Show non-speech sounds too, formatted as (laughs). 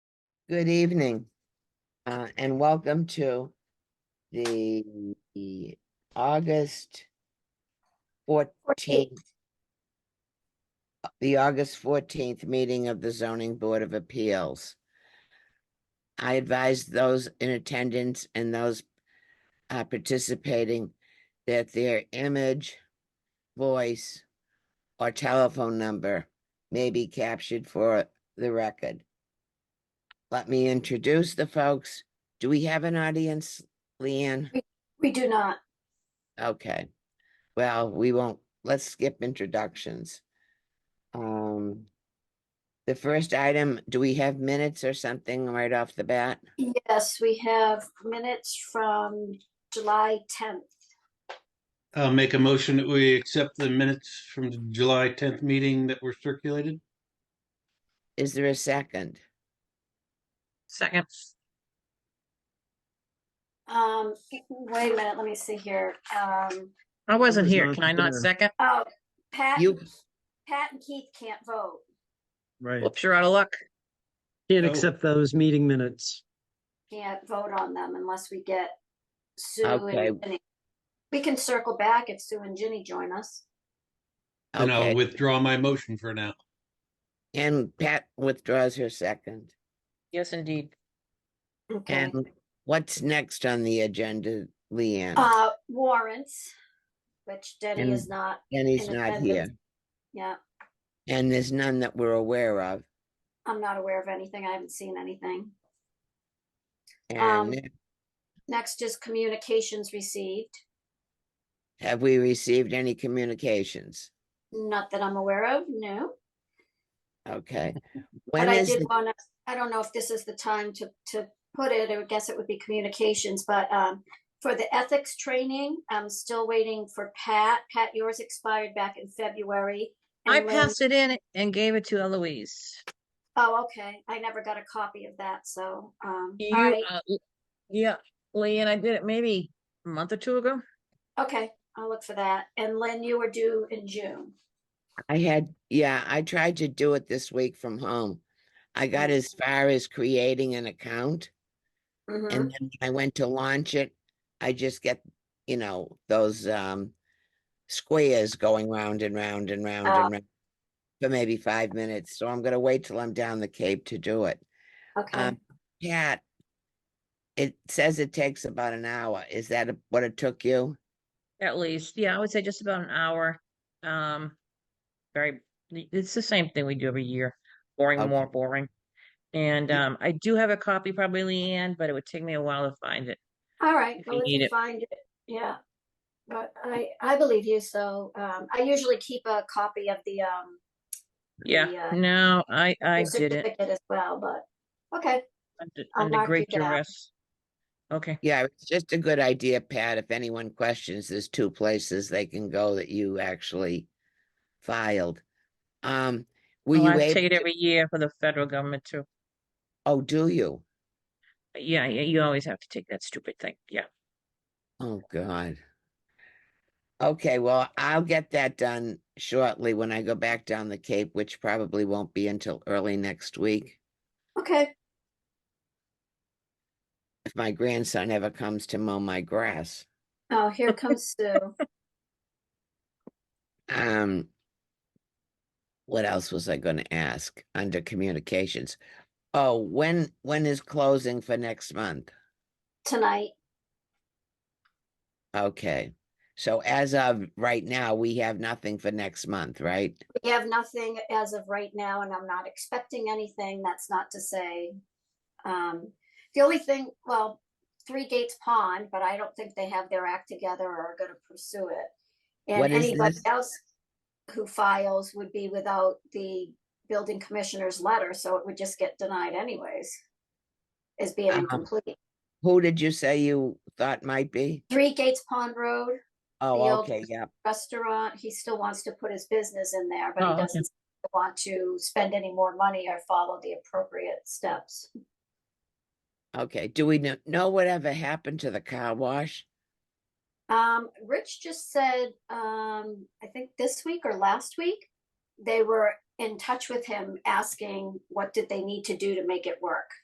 Good evening, uh, and welcome to the August fourteenth. The August fourteenth meeting of the zoning board of appeals. I advise those in attendance and those uh, participating that their image, voice, or telephone number may be captured for the record. Let me introduce the folks. Do we have an audience, Leanne? We do not. Okay. Well, we won't, let's skip introductions. Um, the first item, do we have minutes or something right off the bat? Yes, we have minutes from July 10th. I'll make a motion that we accept the minutes from the July tenth meeting that were circulated. Is there a second? Second, Um, wait a minute, let me see here. Um, I wasn't was here. not Can I not there. second? oh, Pat, You, Pat and Keith can't vote. Right. Whoops, you're out of luck. Can't Oh. accept those meeting minutes. Can't vote on them unless we get Sue Okay. and Ginny. We can circle back if Sue and Ginny join us. And I'll okay, withdraw my motion for now. and Pat withdraws her second. Yes, indeed. Okay. And what's next on the agenda, Leanne? Uh, warrants, which Denny is And- not, Jenny's in not attendance. here, yeah, and there's none that we're aware of. I'm not aware of anything. I haven't seen anything. Um, And Next is communications received, have we received any communications? not that I'm aware of, no. (laughs) Okay. But When I is, did the- want to, I don't know if this is the time to, to put it, I would guess it would be communications, but, um, for the ethics training, I'm still waiting for Pat. Pat, yours expired back in February. I and Lynn- passed it in and gave it to Eloise. Oh, okay. I never got a copy of that, so, um, You, all right, uh, l- yeah, Lee and I did it maybe a month or two ago. uh, okay, I'll look for that. And Lynn, you were due in June. I had, yeah, I tried to do it this week from home. I got Mm-hmm. as far as creating an account Mhm. and then when I went to launch it. I just get, you know, those um squares going round and round and round Ah. and round for maybe five minutes. So I'm gonna wait till I'm down the Cape to do it. Okay, uh, Um, Pat, it says it takes about an hour. Is that a- what it took you? At least, yeah, I would say just about an hour. Um, very, it's the same thing we do every year, boring, Okay. more boring. And, um, I do have a copy probably, Leanne, but it would take me a while to find it. all right, if you well, if need you it. find it, yeah. But I, I believe you, so, um, I usually keep a copy of the, um, Yeah, Yeah. no, I, I the did it certificate As well, but, okay, under- I'll under mark you great down. duress. Okay. Yeah, it's just a good idea, Pat. If anyone questions, there's two places they can go that you actually filed. Um, were Well, you I take able, it every year for the federal government too. oh, do you? Yeah, yeah, you always have to take that stupid thing. Yeah. Oh, God. Okay, well, I'll get that done shortly when I go back down the Cape, which probably won't be until early next week. okay. If my grandson ever comes to mow my grass. Oh, here comes Sue. Um, what else was I gonna ask under communications? Oh, when, when is closing for next month? Tonight, Okay, so as of right now, we have nothing for next month, right? we have nothing as of right now, and I'm not expecting anything. That's not to say. Um, the only thing, well, Three Gates Pond, but I don't think they have their act together or are gonna pursue it. What And is anybody this? else who files would be without the building commissioner's letter, so it would just get denied anyways. As being Um, incomplete. Who did you say you thought might be? Three Gates Pond Road Oh, Field. okay, yeah, restaurant, he still wants to put his business in there, Oh, but he okay. doesn't want to spend any more money or follow the appropriate steps. okay. Do we know, know whatever happened to the car wash? Um, Rich just said, um, I think this week or last week, they were in touch with him asking what did they need to do to make it work.